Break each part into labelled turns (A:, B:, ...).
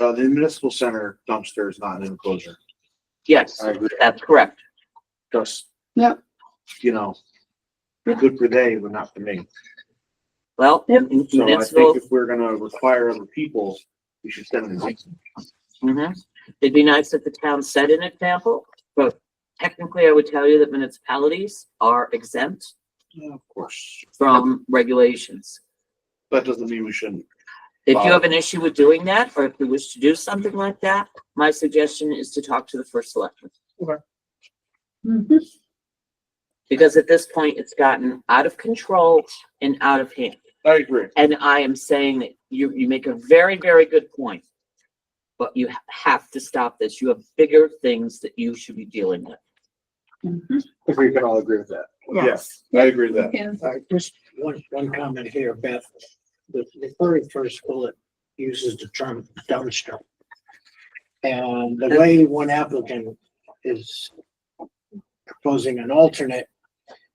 A: Uh, the municipal center dumpster is not an enclosure.
B: Yes,
A: I agree.
B: that's correct.
A: Just.
C: Yep.
A: You know, they're good for they, but not for me.
B: Well,
C: Yep.
A: So I think
B: municipal,
A: if we're gonna require other people, we should send them.
B: mhm. it'd be nice if the town set an example, but technically I would tell you that municipalities are exempt
A: Yeah, Of course.
B: from regulations.
A: That doesn't mean we shouldn't.
B: If you
A: Wow.
B: have an issue with doing that, or if you wish to do something like that, my suggestion is to talk to the first selectman.
C: Mhm.
B: Because at this point, it's gotten out of control and out of hand.
A: I agree.
B: And I am saying that you, you make a very, very good point. But you ha- have to stop this. You have bigger things that you should be dealing with.
C: Mhm.
A: If we can all agree with that.
C: Yes.
A: I agree with that.
C: Yeah.
D: Uh, just one, one comment here, Beth. The, the very first bullet uses the term dumpster. And the way one applicant is proposing an alternate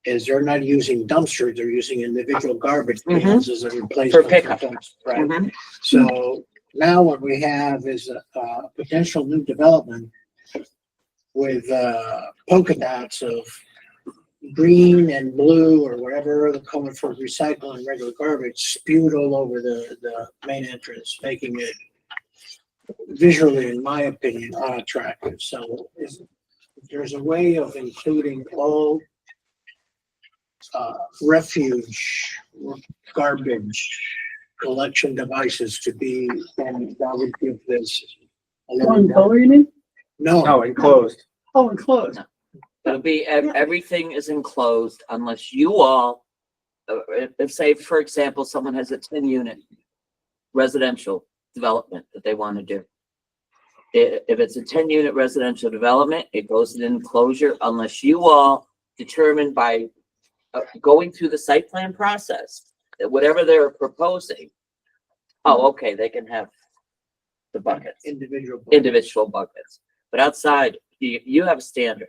D: is they're not using dumpsters, they're using individual garbage
B: Mhm.
D: cans as a replacement.
B: For pickup.
D: dumpster, Right.
B: Mhm.
D: So now what we have is a, a potential new development with, uh, polka dots of green and blue or whatever the color for recycling regular garbage spewed all over the, the main entrance, making it visually, in my opinion, unattractive. So is, there's a way of including all uh, refuge, garbage, collection devices to be, and that would give this. a little
C: One
D: more-
C: color you mean?
D: No,
A: enclosed.
C: Oh, enclosed.
B: It'll be, ev- everything is enclosed unless you all, uh, if, if say, for example, someone has a ten unit residential development that they want to do. I- if it's a ten unit residential development, it goes in enclosure unless you all determine by uh, going through the site plan process, that whatever they're proposing, oh, okay, they can have the buckets
D: individual.
B: individual buckets, but outside, you, you have a standard.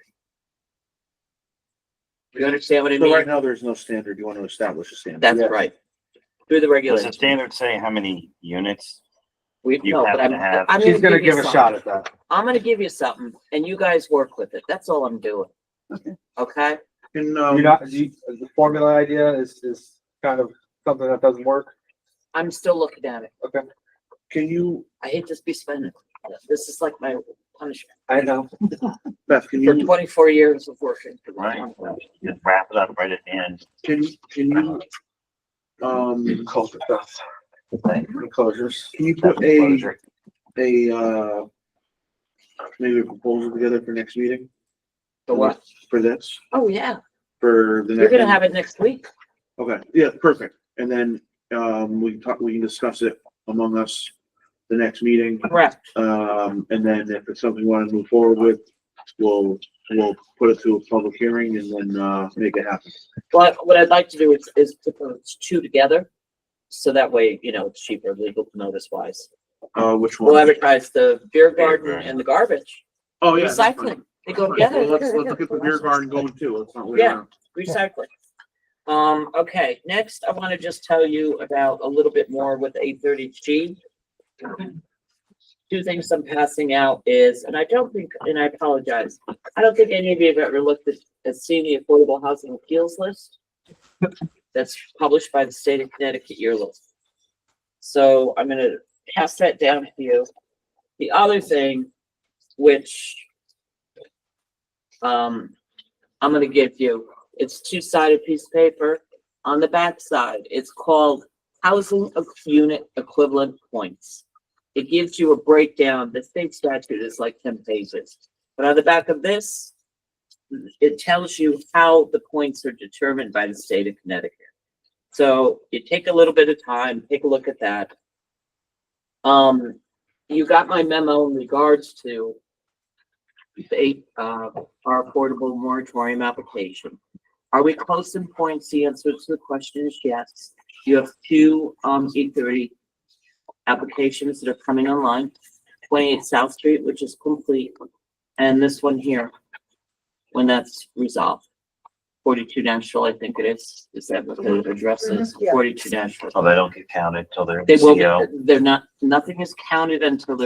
B: You understand what I
A: So right
B: mean?
A: now, there's no standard. You want to establish a standard.
B: That's right. Through the
E: Does the
B: regulations.
E: standard say how many units?
B: We,
E: you
B: no, but
E: have
B: I'm,
E: to have-
B: I'm
F: She's
B: gonna
F: gonna
B: give
F: give
B: you
F: a shot
B: something.
F: at that.
B: I'm gonna give you something and you guys work with it. That's all I'm doing.
C: Okay.
B: Okay?
A: And,
F: You're
A: um,
F: not, you, the formula idea is, is kind of something that doesn't work.
B: I'm still looking at it.
A: can you,
B: I hate to be spending. This is like my punishment
F: I know.
A: Beth, can
B: for
A: you,
B: twenty-four years of working. for the
E: Right.
B: town.
E: Just wrap it up right at the end.
A: can, you- can you, um, enclosures? Can you put a
E: Enclosure.
A: a, uh, maybe a proposal together for next meeting
B: The what?
A: for this,
B: Oh, yeah.
A: for the next.
B: You're gonna have it next week.
A: Okay, yeah, perfect. And then, um, we can talk, we can discuss it among us the next meeting.
B: Correct.
A: Um, and then if it's something we want to move forward with, we'll, we'll put it to a public hearing and then, uh, make it happen.
B: But what I'd like to do is, is to put two together. So that way, you know, it's cheaper legal notice wise.
A: Uh, which
B: We'll
A: one?
B: advertise the beer garden
E: garden.
B: and the garbage,
A: Oh, yeah. that's fine.
B: recycling. They go
A: That's fine.
B: together.
A: Let's, let's get the beer garden going too. Let's not wait
B: Yeah.
A: around.
B: Recycling. Um, okay, next I want to just tell you about a little bit more with eight thirty G. Two things I'm passing out is, and I don't think, and I apologize, I don't think any of you have ever looked at, at seen the Affordable Housing Appeals List. That's published by the state of Connecticut yearly. So I'm gonna pass that down to you. The other thing, which um, I'm gonna give you, it's two-sided piece of paper. On the back side, it's called housing of unit equivalent points. It gives you a breakdown. The state statute is like ten pages. But on the back of this, it tells you how the points are determined by the state of Connecticut. So you take a little bit of time, take a look at that. Um, you got my memo in regards to the eight, uh, our affordable moratorium application. Are we close in points? The answer to the question is yes. You have two, um, eight thirty applications that are coming online. Twenty-eight South Street, which is complete, and this one here, when that's resolved. Forty-two National, I think it is, is that what the address is? Forty-two National.
E: So they don't get counted till they're. E
B: They
E: CO.
B: will, they're not, nothing is counted until they're